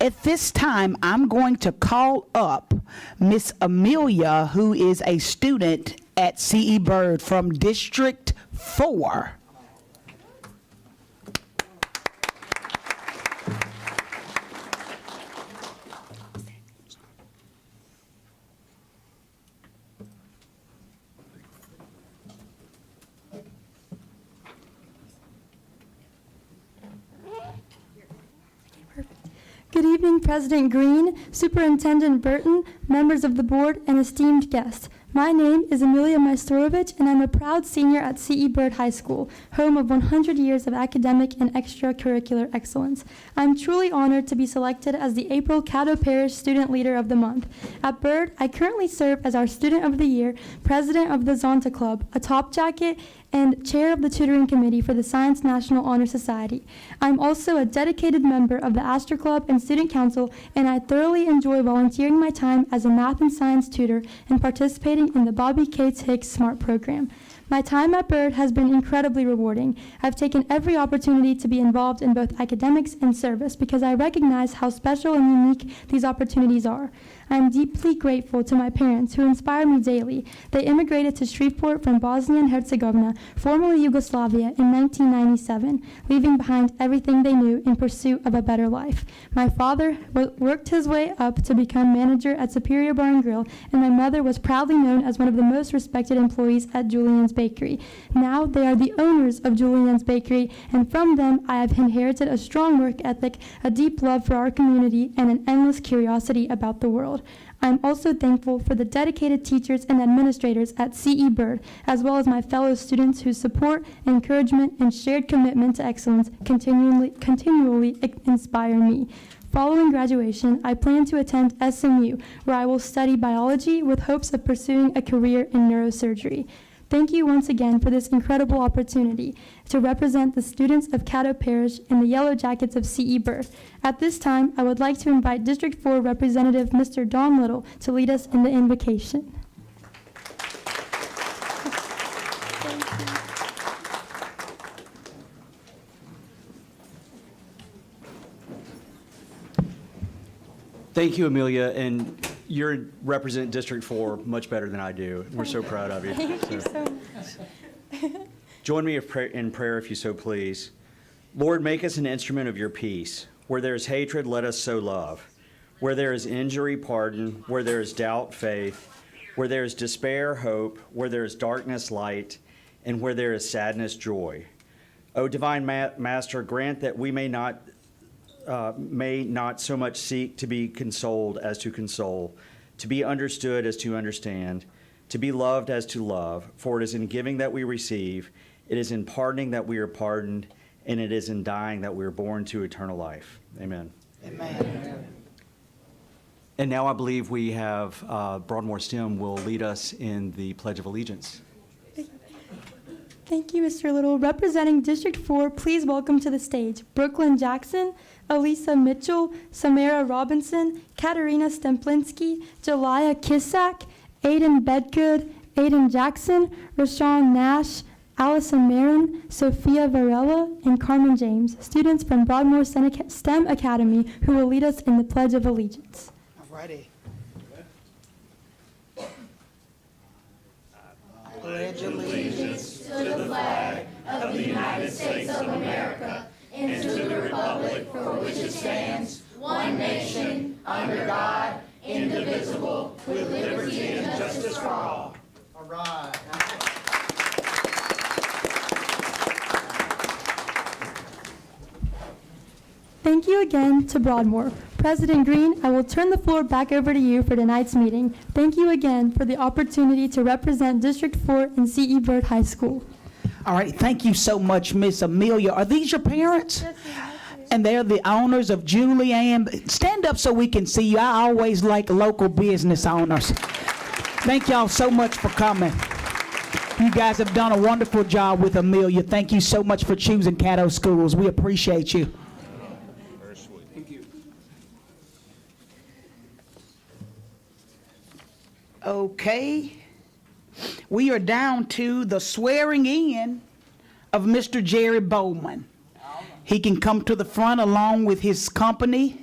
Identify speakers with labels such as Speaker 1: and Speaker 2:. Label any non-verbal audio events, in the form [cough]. Speaker 1: At this time, I'm going to call up Miss Amelia, who is a student at CE Bird from District 4.
Speaker 2: Good evening, President Green, Superintendent Burton, members of the board, and esteemed guests. My name is Amelia Maestrovich, and I'm a proud senior at CE Bird High School, home of 100 years of academic and extracurricular excellence. I'm truly honored to be selected as the April Caddo Parish Student Leader of the Month. At Bird, I currently serve as our Student of the Year, President of the Zonta Club, a top jacket, and chair of the tutoring committee for the Science National Honor Society. I'm also a dedicated member of the Astor Club and Student Council, and I thoroughly enjoy volunteering my time as a math and science tutor and participating in the Bobby Cates Hicks SMART program. My time at Bird has been incredibly rewarding. I've taken every opportunity to be involved in both academics and service because I recognize how special and unique these opportunities are. I am deeply grateful to my parents who inspire me daily. They immigrated to Shreveport from Bosnia and Herzegovina, formerly Yugoslavia, in 1997, leaving behind everything they knew in pursuit of a better life. My father wo- worked his way up to become manager at Superior Bar and Grill, and my mother was proudly known as one of the most respected employees at Julian's Bakery. Now they are the owners of Julian's Bakery, and from them I have inherited a strong work ethic, a deep love for our community, and an endless curiosity about the world. I'm also thankful for the dedicated teachers and administrators at CE Bird, as well as my fellow students whose support, encouragement, and shared commitment to excellence continually, continually inspire me. Following graduation, I plan to attend SMU, where I will study biology with hopes of pursuing a career in neurosurgery. Thank you once again for this incredible opportunity to represent the students of Caddo Parish and the Yellow Jackets of CE Birth. At this time, I would like to invite District 4 Representative Mr. Don Little to lead us in the invocation.
Speaker 3: Thank you, Amelia, and you represent District 4 much better than I do. We're so proud of you.
Speaker 2: Thank you
Speaker 3: So,
Speaker 2: so much. [laughs]
Speaker 3: Join me if pray- in prayer if you so please. Lord, make us an instrument of your peace. Where there is hatred, let us sow love. Where there is injury, pardon. Where there is doubt, faith. Where there is despair, hope. Where there is darkness, light. And where there is sadness, joy. O divine Ma- Master, grant that we may not may not so much seek to be consoled as to console, to be understood as to understand, to be loved as to love. For it is in giving that we receive, it is in pardoning that we are pardoned, and it is in dying that we are born to eternal life. Amen. Amen. And now I believe we have uh, Broadmoor STEM will lead us in the Pledge of Allegiance.
Speaker 2: Thank you, Mr. Little. Representing District 4, please welcome to the stage Brooklyn Jackson, Elisa Mitchell, Samara Robinson, Katarina Stemplinski, Jelia Kissack, Aiden Bedgood, Aiden Jackson, Rashawn Nash, Allison Marin, Sophia Varela, and Carmen James, students from Broadmoor Sen- STEM Academy who will lead us in the Pledge of Allegiance.
Speaker 4: Alrighty. Pledge allegiance to the flag of the United States of America and to the republic for which it stands, one nation, under God, indivisible, with liberty and justice for all. All right.
Speaker 2: Thank you again to Broadmoor. President Green, I will turn the floor back over to you for tonight's meeting. Thank you again for the opportunity to represent District 4 and CE E Bird High School.
Speaker 1: All right, thank you so much, Miss Amelia. Are these your parents? And they're the owners of Julianne. Stand up so we can see you. I always like local business owners. Thank y'all so much for coming. You guys have done a wonderful job with Amelia. Thank you so much for choosing Caddo Schools. We appreciate you. Okay. We are down to the swearing in of Mr. Jerry Bowman. He can come to the front along with his company.